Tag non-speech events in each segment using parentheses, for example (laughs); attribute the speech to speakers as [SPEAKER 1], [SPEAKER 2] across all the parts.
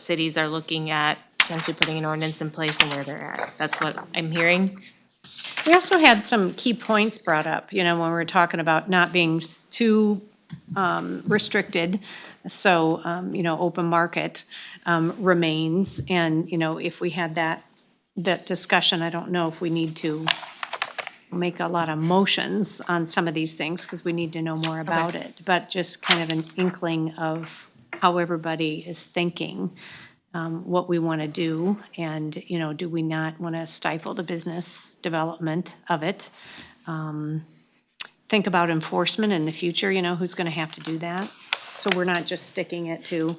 [SPEAKER 1] cities are looking at potentially putting an ordinance in place and where they're at. That's what I'm hearing.
[SPEAKER 2] We also had some key points brought up, you know, when we were talking about not being s- too um, restricted. So, um, you know, open market um, remains, and, you know, if we had that, that discussion, I don't know if we need to make a lot of motions on some of these things, because we need to know more about it. But just kind of an inkling of how everybody is thinking, um, what we want to do, and, you know, do we not want to stifle the business development of it? Um, Think about enforcement in the future, you know, who's going to have to do that? So we're not just sticking it to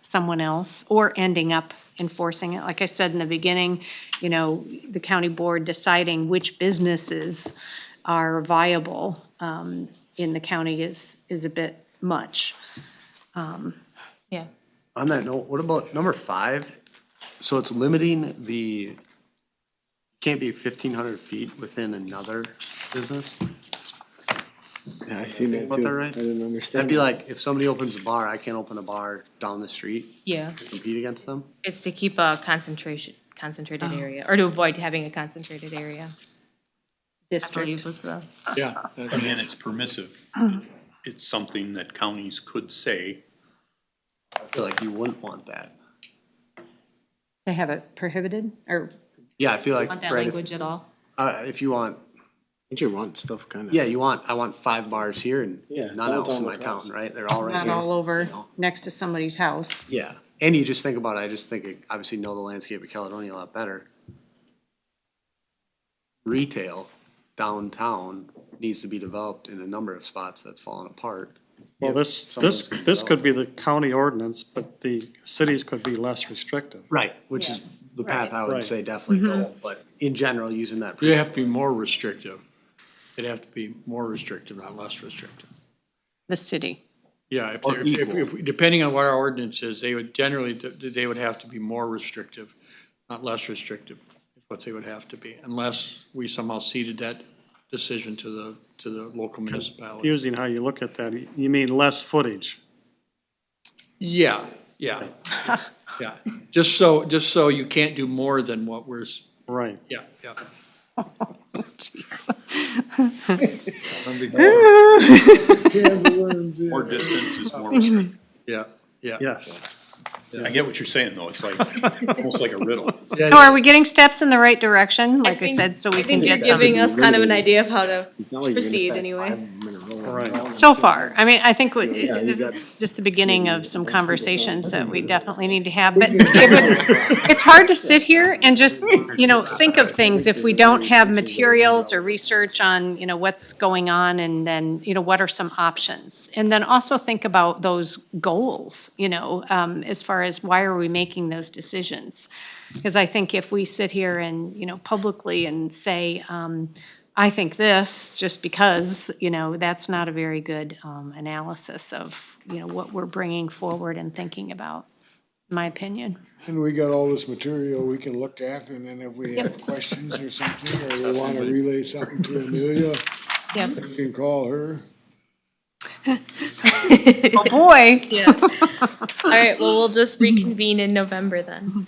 [SPEAKER 2] someone else or ending up enforcing it. Like I said in the beginning, you know, the county board deciding which businesses are viable um, in the county is, is a bit much.
[SPEAKER 1] Yeah.
[SPEAKER 3] On that note, what about number five? So it's limiting the, can't be fifteen hundred feet within another business?
[SPEAKER 4] Yeah, I seen that
[SPEAKER 3] About
[SPEAKER 4] too.
[SPEAKER 3] that
[SPEAKER 4] I
[SPEAKER 3] right?
[SPEAKER 4] didn't
[SPEAKER 3] That'd
[SPEAKER 4] understand.
[SPEAKER 3] be
[SPEAKER 4] that.
[SPEAKER 3] like, if somebody opens a bar, I can't open a bar down the street,
[SPEAKER 1] Yeah.
[SPEAKER 3] compete against them?
[SPEAKER 1] It's to keep a concentration, concentrated area, or to avoid having a concentrated area, I believe
[SPEAKER 2] District,
[SPEAKER 1] was the.
[SPEAKER 5] Yeah, that-
[SPEAKER 6] And it's permissive. It's something that counties could say,
[SPEAKER 3] I feel like you wouldn't want that.
[SPEAKER 2] they have it prohibited or
[SPEAKER 3] Yeah, I feel like,
[SPEAKER 1] Want that
[SPEAKER 3] right, if,
[SPEAKER 1] language at all?
[SPEAKER 3] uh, if you want,
[SPEAKER 4] Don't you want stuff kind of?
[SPEAKER 3] yeah, you want, I want five bars here and
[SPEAKER 4] Yeah,
[SPEAKER 3] none else in
[SPEAKER 4] downtown
[SPEAKER 3] my town,
[SPEAKER 4] across.
[SPEAKER 3] right? They're all right
[SPEAKER 2] not
[SPEAKER 3] here.
[SPEAKER 2] all over next to somebody's house.
[SPEAKER 3] Yeah, and you just think about it, I just think, it- obviously know the landscape of Caledonia a lot better. Retail downtown needs to be developed in a number of spots that's fallen apart.
[SPEAKER 7] Well, this,
[SPEAKER 3] Some of
[SPEAKER 7] this,
[SPEAKER 3] it's been
[SPEAKER 7] this could be the county ordinance, but the cities could be less restrictive.
[SPEAKER 3] Right, which is the path I would
[SPEAKER 7] Right.
[SPEAKER 3] say definitely go, but in general, using that.
[SPEAKER 5] you have to be more restrictive. It'd have to be more restrictive, not less restrictive.
[SPEAKER 2] The city.
[SPEAKER 5] Yeah, if,
[SPEAKER 3] Or
[SPEAKER 5] they're- if,
[SPEAKER 3] equal.
[SPEAKER 5] if, depending on what our ordinance is, they would generally, they would have to be more restrictive, not less restrictive, is what they would have to be, unless we somehow ceded that decision to the, to the local municipality.
[SPEAKER 7] Using how you look at that, you mean less footage.
[SPEAKER 5] Yeah, yeah, yeah. Just so, just so you can't do more than what we're, s-
[SPEAKER 7] Right.
[SPEAKER 5] yeah, yeah.
[SPEAKER 2] Jeez.
[SPEAKER 6] more distance is more restrictive.
[SPEAKER 5] Yeah, yeah.
[SPEAKER 7] Yes.
[SPEAKER 6] I get what you're saying, though. It's like, almost like a riddle.
[SPEAKER 2] So are we getting steps in the right direction? Like I
[SPEAKER 1] think-
[SPEAKER 2] said, so we
[SPEAKER 1] I
[SPEAKER 2] can
[SPEAKER 1] think you're
[SPEAKER 2] get some.
[SPEAKER 1] giving us kind of an idea of how to
[SPEAKER 4] It's not like you're gonna
[SPEAKER 1] proceed
[SPEAKER 4] stack
[SPEAKER 1] anyway.
[SPEAKER 4] five in a row.
[SPEAKER 7] Right.
[SPEAKER 2] So far, I mean, I think we-
[SPEAKER 4] Yeah, you
[SPEAKER 2] this is
[SPEAKER 4] got-
[SPEAKER 2] just the beginning of some conversations that
[SPEAKER 4] (laughs)
[SPEAKER 2] we definitely need to have, but it would- it's hard to sit here and just, you know, think of things if we don't have materials or research on, you know, what's going on and then, you know, what are some options? And then also think about those goals, you know, um, as far as why are we making those decisions? Because I think if we sit here and, you know, publicly and say, um, I think this, just because, you know, that's not a very good um, analysis of, you know, what we're bringing forward and thinking about, in my opinion.
[SPEAKER 8] And we got all this material we can look at, and then if we
[SPEAKER 1] (laughs)
[SPEAKER 8] have questions or something, or we wanna relay something to Amelia,
[SPEAKER 1] Yep.
[SPEAKER 8] we can call her.
[SPEAKER 2] Oh, boy.
[SPEAKER 1] Yeah. (laughs) All right, well, we'll just reconvene in November then.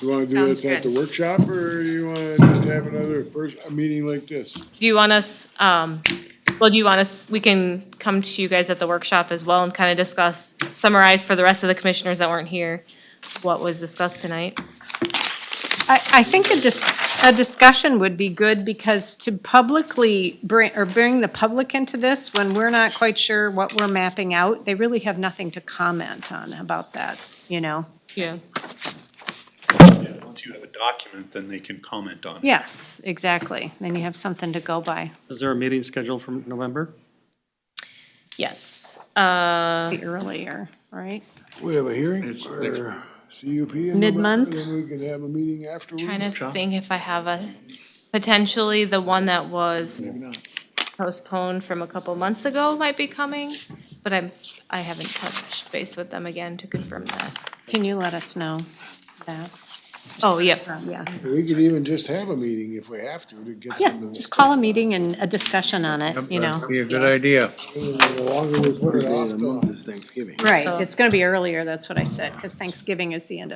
[SPEAKER 8] You wanna do
[SPEAKER 1] Sounds
[SPEAKER 8] this at the
[SPEAKER 1] good.
[SPEAKER 8] workshop, or you wanna just have another first, a meeting like this?
[SPEAKER 1] Do you want us, um, well, do you want us, we can come to you guys at the workshop as well and kind of discuss, summarize for the rest of the commissioners that weren't here, what was discussed tonight?
[SPEAKER 2] I, I think a dis, a discussion would be good because to publicly bring, or bring the public into this when we're not quite sure what we're mapping out, they really have nothing to comment on about that, you know?
[SPEAKER 1] Yeah.
[SPEAKER 6] Once you have a document, then they can comment on it.
[SPEAKER 2] Yes, exactly. Then you have something to go by,
[SPEAKER 7] Is there a meeting scheduled for November?
[SPEAKER 1] Yes, uh,
[SPEAKER 2] the earlier, right?
[SPEAKER 8] We have a hearing
[SPEAKER 5] It's next-
[SPEAKER 8] or CUP in November,
[SPEAKER 2] Mid-month?
[SPEAKER 8] Then we can have a meeting afterwards.
[SPEAKER 1] trying to think if I have a, potentially the one that was postponed from a couple months ago might be coming, but I'm, I haven't touched base with them again to confirm that.
[SPEAKER 2] Can you let us know that?
[SPEAKER 1] Oh, yeah.
[SPEAKER 2] Yeah,
[SPEAKER 8] We could even just have a meeting if we have to, to get
[SPEAKER 2] yeah,
[SPEAKER 8] some of
[SPEAKER 2] just call a meeting and a discussion on it, you know?
[SPEAKER 9] Be a good idea.
[SPEAKER 8] The longer we put it
[SPEAKER 4] Day of
[SPEAKER 8] off,
[SPEAKER 4] the
[SPEAKER 8] the
[SPEAKER 4] month is Thanksgiving.
[SPEAKER 2] Right, it's gonna be earlier, that's what I said, because Thanksgiving is the end of.